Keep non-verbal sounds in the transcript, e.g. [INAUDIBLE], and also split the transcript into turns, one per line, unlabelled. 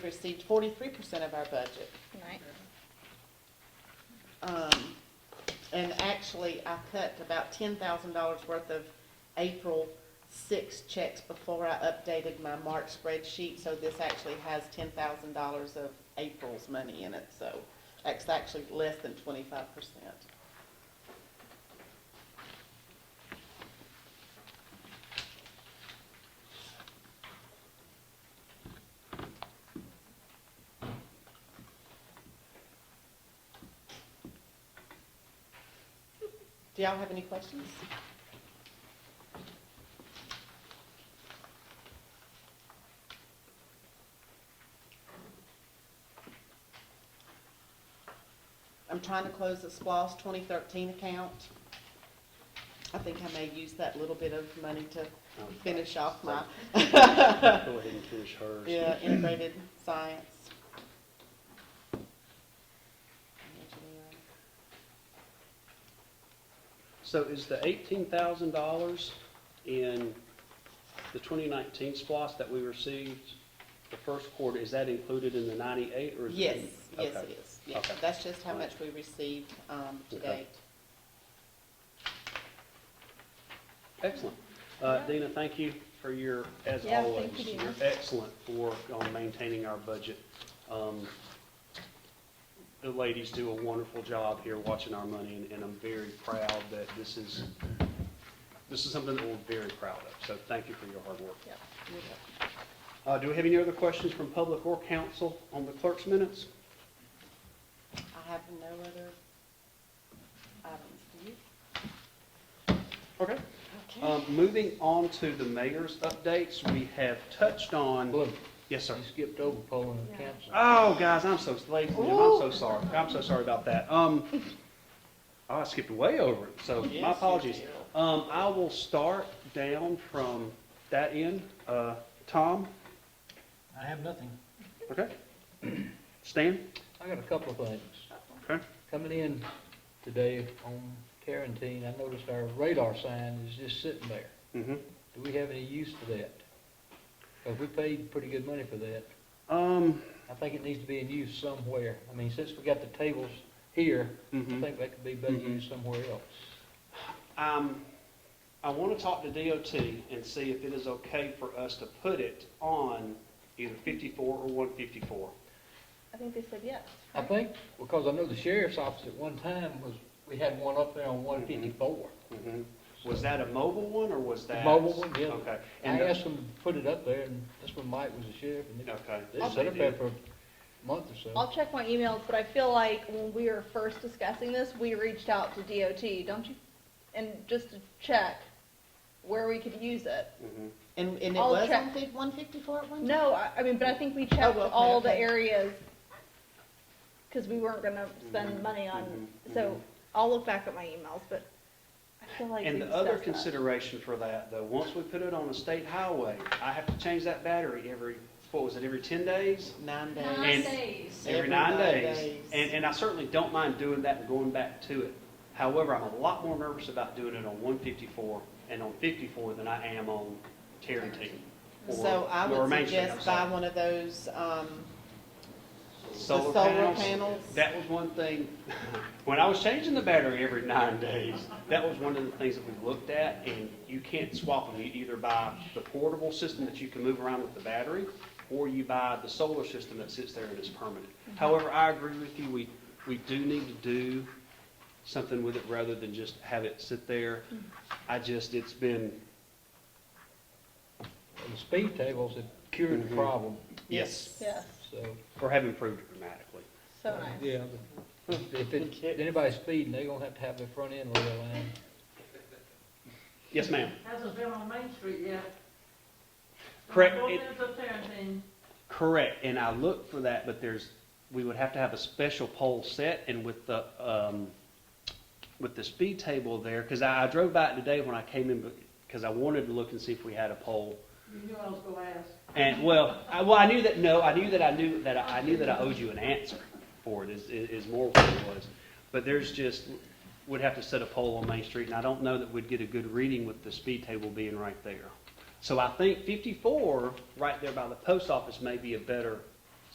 received forty-three percent of our budget.
Right.
Um, and actually, I cut about ten thousand dollars worth of April six checks before I updated my March spreadsheet, so this actually has ten thousand dollars of April's money in it, so that's actually less than twenty-five percent. Do y'all have any questions? I'm trying to close the SPOS 2013 account. I think I may use that little bit of money to finish off my [LAUGHS]
Go ahead and finish hers.
yeah, integrated science.
So is the eighteen thousand dollars in the twenty nineteen SPOS that we received the first quarter, is that included in the ninety-eight or is it?
Yes, yes,
Okay.
it is. Yes,
Okay.
that's just how much we received um, to
Okay.
date.
Excellent. Uh, Dina, thank you for your, as
Yeah,
always,
thank you,
your
Dina.
excellent work on maintaining our budget. Um, The ladies do a wonderful job here watching our money, and- and I'm very proud that this is, this is something that we're very proud of. So thank you for your hard work.
Yep.
Uh, Do we have any other questions from public or council on the clerk's minutes?
I have no other items. Do you?
Okay. Um, Moving on to the mayor's updates, we have touched on,
Look,
yes, sir.
you skipped over polling the council.
Oh, guys, I'm so, ladies and gentlemen, I'm so sorry. I'm so sorry about that. Um, [LAUGHS] I skipped way over it, so
Yes, you
my apologies.
did.
Um, I will start down from that end. Uh, Tom,
I have nothing.
okay? [CLEARS THROAT] Stan,
I got a couple of things.
okay?
Coming in today on Tarantine, I noticed our radar sign is just sitting there.
hmm
Do we have any use for that? Because we paid pretty good money for that.
Um,
I think it needs to be in use somewhere. I mean, since we got the tables here, I
mhm.
think that could be better
Mhm.
used somewhere else.
Um, I want to talk to DOT and see if it is okay for us to put it on either fifty-four or one fifty-four.
I think they said yes.
I think, because I know the sheriff's office at one time was, we had one up there on one fifty-four.
Mhm. Was that a mobile one, or was
The
that?
Mm-hmm. mobile one, yeah.
Okay.
I
And uh, the-
asked them to put it up there, and that's when Mike was the sheriff, and they-
Okay.
they set up there for a month or
I'll
so.
check my emails, but I feel like when we were first discussing this, we reached out to DOT, don't you? And just to check where we could use it.
Mhm.
And, and it
I'll
was
check.
on fif- 154 at one time?
No, I, I mean, but I think we checked
Oh, okay,
all the
okay.
areas, cause we weren't gonna spend
Mhm,
money on,
mhm,
so
mhm.
I'll look back at my emails, but I feel like we
And the other
discussed that.
consideration for that, though, once we put it on a state highway, I have to change that battery every, what was it, every ten days?
Nine days.
And-
Nine days.
Every nine days. And, and I certainly don't mind doing that and going back to it. However, I'm a lot more nervous about doing it on one fifty-four and on fifty-four than I am on Tarrentine. or-
So I
or
would
Main Street, I'm
suggest buy
sorry.
one of those, um,
The
the solar panels.
That was one thing, when I was changing the battery every nine days, that was one of the things that we looked at, and you can't swap them. You either buy the portable system that you can move around with the battery, or you buy the solar system that sits there and is permanent.
Mm-hmm.
However, I agree with you, we, we do need to do something with it rather than just have it sit there.
Mm-hmm.
I just, it's been,
And the speed tables have cured the
Mhm.
problem,
yes,
Yes,
so,
or have improved dramatically.
so nice.
yeah. but If it- if anybody's speeding, they're gonna have to have their front end real line.
Yes, ma'am.
Hasn't been on Main Street yet.
Correct.
Going
It-
into Tarrentine,
Correct, and I looked for that, but there's, we would have to have a special pole set, and with the, um, with the speed table there, because I, I drove by it today when I came in, because I wanted to look and see if we had a pole.
you knew I was gonna ask.
And, well, I, well, I knew that, no, I knew that I knew, that I I knew that I owed you an answer for it, is, is is more what it was. But there's just, would have to set a pole on Main Street, and I don't know that we'd get a good reading with the speed table being right there. So I think fifty-four, right there by the post office, may be a better